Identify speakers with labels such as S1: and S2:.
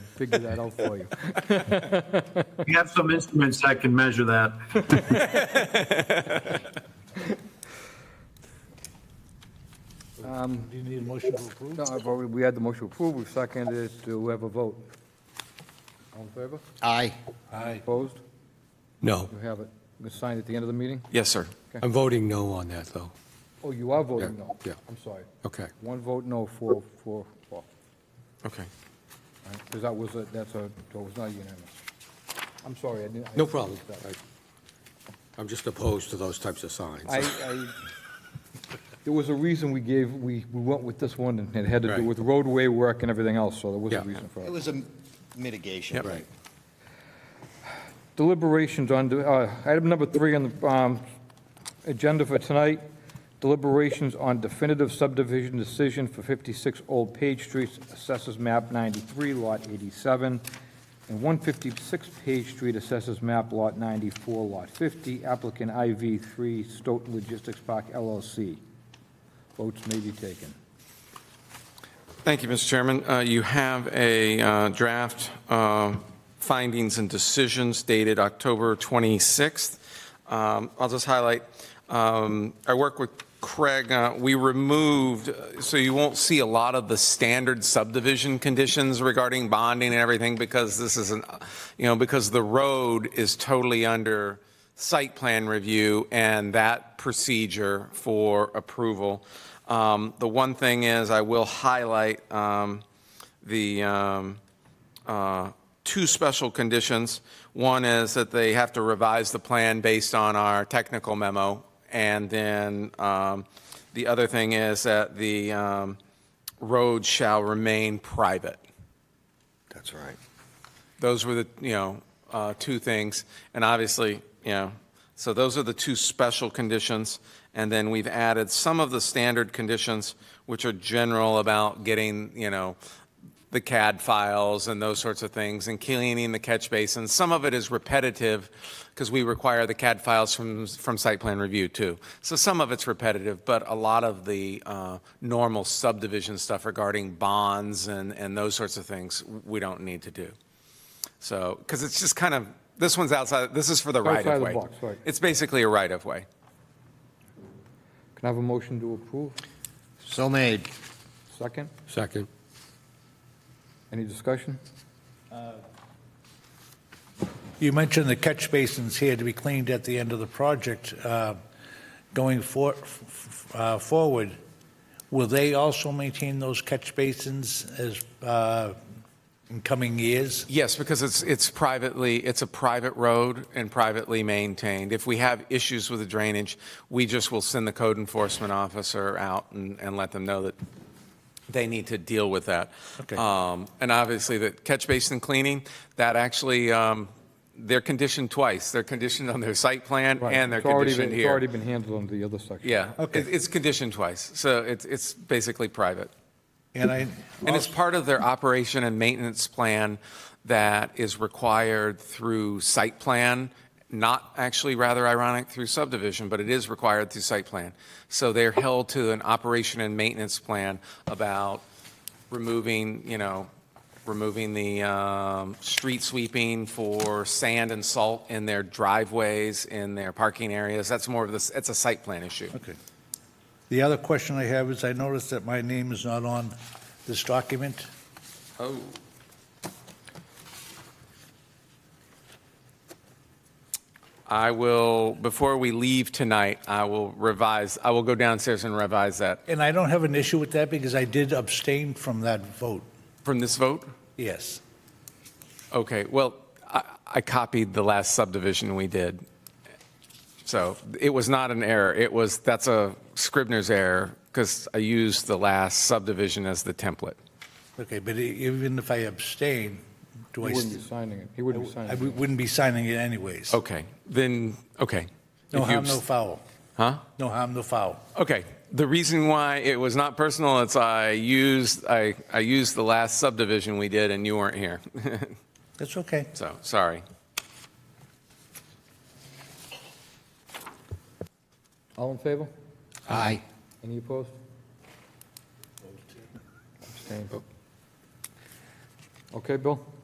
S1: figure that out for you.
S2: We have some instruments that can measure that.
S3: Do you need a motion to approve?
S1: No, I've already- we had the motion approved, we've seconded it, do we have a vote? All in favor?
S4: Aye.
S3: Aye.
S1: Opposed?
S5: No.
S1: You have it. It's signed at the end of the meeting?
S5: Yes, sir. I'm voting no on that, though.
S1: Oh, you are voting
S5: Yeah,
S1: no?
S5: yeah.
S1: I'm sorry.
S5: Okay,
S1: One vote no, four, four, four.
S5: okay.
S1: Because that was, a that's a, that was not unanimous. I'm sorry, I didn't. I-
S5: No problem. I- I'm just opposed to those types of signs.
S1: I, I, there was a reason we gave, we, we went with this one, and it had to do
S5: Right.
S1: with roadway work and everything else, so there was a
S5: Yeah.
S1: reason for
S4: It
S1: it.
S4: was a mitigation,
S5: Yep.
S4: right?
S1: Deliberations on, uh, item number three on the um, agenda for tonight, deliberations on definitive subdivision decision for 56 Old Page Street, Assessors Map 93, Lot 87, and 156 Page Street, Assessors Map Lot 94, Lot 50, applicant IV3 Stoughton Logistics Park LLC. Votes may be taken.
S6: Thank you, Mr. Chairman. Uh, You have a uh, draft uh, findings and decisions dated October 26th. Um, I'll just highlight, um, I work with Craig, uh, we removed, uh, so you won't see a lot of the standard subdivision conditions regarding bonding and everything because this is an, you know, because the road is totally under site plan review and that procedure for approval. Um, The one thing is, I will highlight um, the um, uh, two special conditions. One is that they have to revise the plan based on our technical memo, and then um, the other thing is that the um, road shall remain private.
S4: That's right.
S6: Those were the, you know, uh, two things, and obviously, you know, so those are the two special conditions, and then we've added some of the standard conditions, which are general about getting, you know, the CAD files and those sorts of things, and cleaning the catch basin. Some of it is repetitive, because we require the CAD files from, from site plan review, too. So some of it's repetitive, but a lot of the uh, normal subdivision stuff regarding bonds and, and those sorts of things, we don't need to do. So, because it's just kind of, this one's outside, this is for the right
S1: Outside
S6: of
S1: the
S6: way.
S1: box, right.
S6: It's basically a right of way.
S1: Can I have a motion to approve?
S4: So made.
S1: Second?
S5: Second.
S1: Any discussion?
S3: You mentioned the catch basins here to be cleaned at the end of the project. Uh, Going for- f- f- uh, forward, will they also maintain those catch basins as, uh, in coming years?
S6: Yes, because it's, it's privately, it's a private road and privately maintained. If we have issues with the drainage, we just will send the code enforcement officer out and, and let them know that they need to deal with that.
S3: Okay.
S6: Um, And obviously, the catch basin cleaning, that actually, um, they're conditioned twice. They're conditioned on their site plan
S1: Right,
S6: and they're
S1: it's already
S6: conditioned
S1: been-
S6: here.
S1: It's already been handled on the other section.
S6: Yeah,
S3: Okay.
S6: it- it's conditioned twice, so it's, it's basically private.
S3: And I,
S6: And it's part of their operation and maintenance plan that is required through site plan, not actually rather ironic through subdivision, but it is required through site plan. So they're held to an operation and maintenance plan about removing, you know, removing the um, street sweeping for sand and salt in their driveways, in their parking areas. That's more of this, it's a site plan issue.
S3: okay. The other question I have is I noticed that my name is not on this document.
S6: Oh. I will, before we leave tonight, I will revise, I will go downstairs and revise that
S3: And I don't have an issue with that because I did abstain from that vote,
S6: from this vote.
S3: yes.
S6: Okay, well, I, I copied the last subdivision we did. So it was not an error. It was, that's a Scribner's error because I used the last subdivision as the template.
S3: Okay, but e- even if I abstain, do I,
S1: He wouldn't
S3: st-
S1: be signing it. He wouldn't be
S3: I
S1: signing it.
S3: wouldn't be signing it anyways.
S6: Okay, then, okay.
S3: No
S6: If you
S3: harm, no
S6: abst-
S3: foul.
S6: Huh?
S3: No harm, no foul.
S6: Okay, the reason why it was not personal is I used, I, I used the last subdivision we did and you weren't here.
S3: That's okay.
S6: So, sorry.
S1: All in favor?
S4: Aye.
S1: Any opposed? Abstained. Okay, Bill?